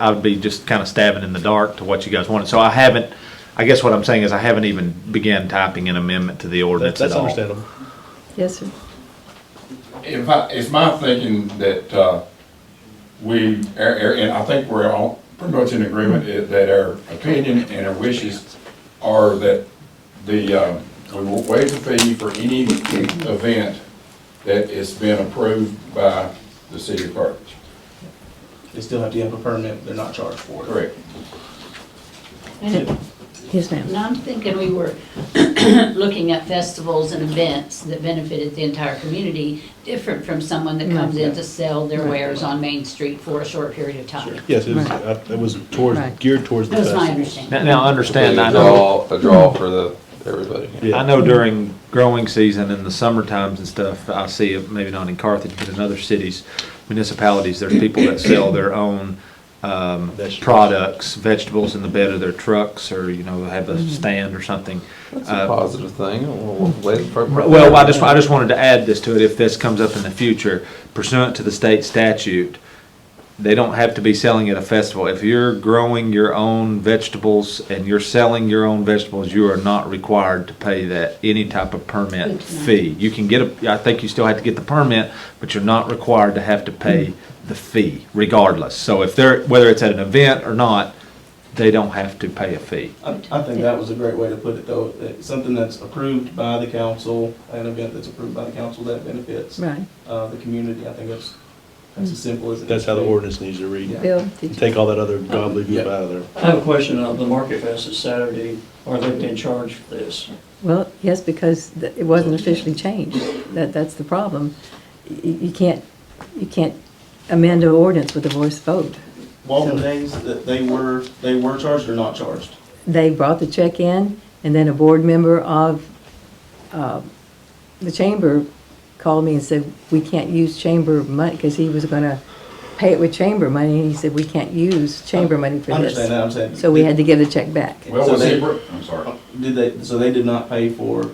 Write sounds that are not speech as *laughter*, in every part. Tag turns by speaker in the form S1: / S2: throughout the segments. S1: I would be just kind of stabbing in the dark to what you guys wanted. So I haven't, I guess what I'm saying is I haven't even began typing an amendment to the ordinance at
S2: That's
S1: all.
S2: understandable.
S3: Yes, sir.
S4: If I, it's my thinking that, uh, we, er- er, and I think we're all pretty much in agreement i- that our opinion and our wishes are that the, um, we will waive the fee for any event that has been approved by the city of Carthage.
S5: They still have to have a permit, they're not charged for it.
S4: Correct.
S6: And
S3: Yes, ma'am.
S6: I'm thinking we were *clears throat* looking at festivals and events that benefited the entire community, different from someone that comes in to sell their wares on Main Street for a short period of time.
S2: Yes, it was,
S3: Right.
S2: uh, it was towards,
S3: Right.
S2: geared towards the
S6: That was my
S2: festival.
S6: understanding.
S1: Now, now understand, I
S7: a
S1: know, uh,
S7: draw, a draw for the, everybody.
S1: I know during growing season in the summer times and stuff, I see, it, maybe not in Carthage, but in other cities, municipalities, there's people that sell their own, um,
S2: Vegetables.
S1: products, vegetables in the bed of their trucks or, you know, have a stand or something.
S7: That's
S1: Uh,
S7: a positive thing. We'll- we'll let it per-
S1: Right, Well, I just, I just wanted to add this to it, if this comes up in the future, pursuant to the state statute, they don't have to be selling at a festival. If you're growing your own vegetables and you're selling your own vegetables, you are not required to pay that, any type of permit
S6: Good to know.
S1: fee. You can get a, I think you still have to get the permit, but you're not required to have to pay the fee regardless. So if they're, whether it's at an event or not, they don't have to pay a fee.
S5: I, I think that was a great way to put it though, that something that's approved by the council, an event that's approved by the council that benefits,
S3: Right.
S5: uh, the community, I think that's, that's as simple as it is.
S2: That's how the
S5: to be.
S2: ordinance needs to read.
S3: Bill, did you?
S2: Take all that other gobbledygook
S5: Yeah.
S2: out of there.
S8: I have a question on the Market Fest is Saturday. Are they being charged for this?
S3: Well, yes, because th- it wasn't officially changed. That, that's the problem. You, you can't, you can't amend an ordinance with a voice vote.
S5: Walton Days, that they were, they were charged or not charged?
S3: They brought the check in, and then a board member of, uh, the chamber called me and said, we can't use chamber money, because he was gonna pay it with chamber money, and he said, we can't use chamber money for
S5: I understand
S3: this.
S5: that, I'm saying.
S3: So we had to give the check back.
S4: Well,
S5: So
S4: was
S5: they-
S4: he, I'm sorry.
S5: Did they, so they did not pay for,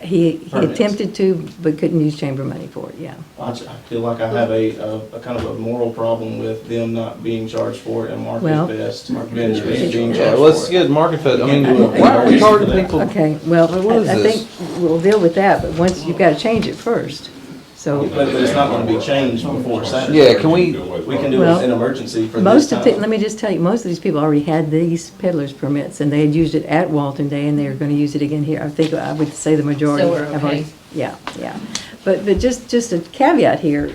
S3: He, he
S5: Permits.
S3: attempted to, but couldn't use chamber money for it, yeah.
S5: I j- I feel like I have a, a, a kind of a moral problem with them not being charged for it and
S3: Well-
S5: Market Fest, being
S3: Fest.
S5: being charged
S7: Yeah,
S5: for it.
S7: let's get Market Fed, I mean,
S5: Yeah.
S7: why are we charging people?
S3: Okay, well,
S7: What is
S3: I I
S7: this?
S3: think we'll deal with that, but once, you've got to change it first. So,
S5: But but it's not gonna be changed before Saturday.
S7: Yeah, can we-
S5: We can do it
S3: Well,
S5: as an emergency for this
S3: most of, the-
S5: time.
S3: let me just tell you, most of these people already had these peddler's permits, and they had used it at Walton Day, and they are going to use it again here. I think, I would say the majority
S6: So we're
S3: have already.
S6: okay.
S3: Yeah, yeah. But, but just, just a caveat here,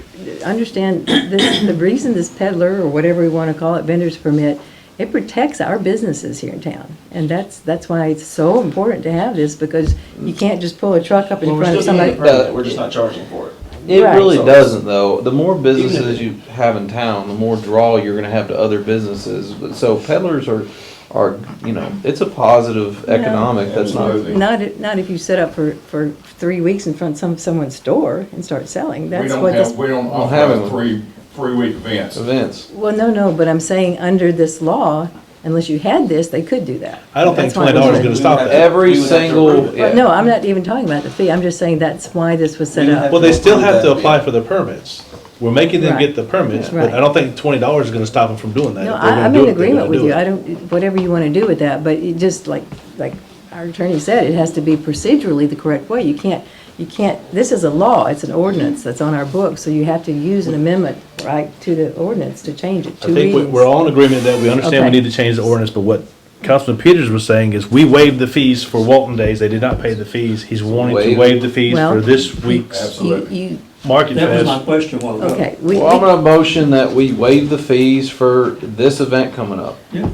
S3: understand, this- the reason this peddler, or whatever we want to call it, vendor's permit, it protects our businesses here in town. And that's, that's why it's so important to have this, because you can't just pull a truck up in
S5: Well, we're
S3: front of
S5: still getting
S3: somebody.
S5: a permit, we're just not charging for it.
S7: It
S3: Right.
S7: really
S5: So-
S7: doesn't though. The more
S5: Even if-
S7: businesses you have in town, the more draw you're gonna have to other businesses. But- So peddlers are, are, you know, it's a positive economic, that's not.
S4: Absolutely.
S3: Not, if- not if you set up for, for three weeks in front of some, someone's store and start selling,
S4: We
S3: that's
S4: don't
S3: what this.
S4: have, we don't
S7: Don't have
S4: offer
S7: it.
S4: three, three-week events.
S7: Events.
S3: Well, no, no, but I'm saying, under this law, unless you had this, they could do that.
S2: I don't think
S3: That's why I'm
S2: $20 is
S3: saying-
S2: gonna stop that.
S7: Every
S5: We would have to
S7: single-
S5: approve it.
S7: yeah.
S3: Well, no, I'm not even talking about the fee, I'm just saying that's why this was set
S5: We have
S3: up.
S2: Well, they still have to
S5: Approve that,
S2: apply
S5: yeah.
S2: for the permits. We're making them get the permits, but
S3: Right.
S2: I don't think twenty dollars is gonna stop them from doing that.
S3: No,
S2: If they're
S3: I,
S2: gonna
S3: I'm
S2: do
S3: in
S2: it, they're
S3: agreement
S2: gonna
S3: with
S2: do
S3: you,
S2: it.
S3: I don't, whatever you wanna do with that, but it just like, like our attorney said, it has to be procedurally the correct way, you can't, you can't, this is a law, it's an ordinance that's on our books, so you have to use an amendment, right, to the ordinance to change it,
S2: I
S3: two
S2: think we-
S3: readings.
S2: we're all in agreement that we understand we
S3: Okay.
S2: need to change the ordinance, but what Councilman Peters was saying is we waived the fees for Walton Days. They did not pay the fees. He's wanting to
S7: Waive.
S2: waive the fees for
S3: Well-
S2: this week's
S4: Absolutely.
S3: You, you,
S2: Market
S8: That was my
S2: Fest.
S8: question while ago.
S3: okay, we,
S7: Well, I'm gonna motion that we waive the fees for this event coming up.
S8: Yeah.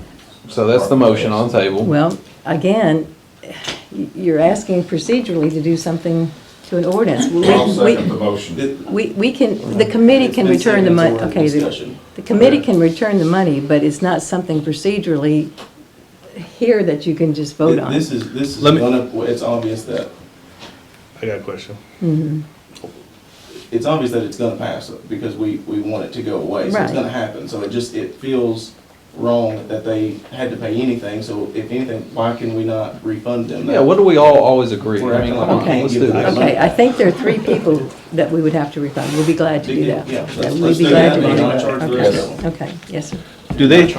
S7: So that's the motion on the table.
S3: Well, again, y- you're asking procedurally to do something to an ordinance. We-
S4: I'll second the
S3: we-
S4: motion.
S3: We, we can, the committee can
S5: It's been
S3: return the
S5: seconded, so
S3: money,
S5: we're in
S3: okay, the,
S5: discussion.
S3: the committee can return the money, but it's not something procedurally here that you can just vote on.
S5: This is, this is
S2: Let me-
S5: one of, it's obvious that,
S2: I got a question.
S5: it's obvious that it's gonna pass because we, we want it to go away, so it's
S3: Right.
S5: gonna happen. So it just, it feels wrong that they had to pay anything, so if anything, why can we not refund them? that?
S7: Yeah, what do we all always agree?
S5: We're
S7: I mean,
S5: acting
S7: come
S5: like
S7: on,
S3: we
S7: let's
S5: can't
S7: do
S5: give
S7: this.
S5: them
S3: Okay, I think there are three people that we would have to refund. We'll be glad to do that.
S5: Yeah, let's-
S3: We'd
S5: let's
S3: be
S5: do
S3: glad
S5: that,
S3: to
S5: but
S3: do
S5: not
S3: that.
S5: charge the
S3: Okay.
S5: rest of
S3: Okay, yes, sir.
S2: Do they,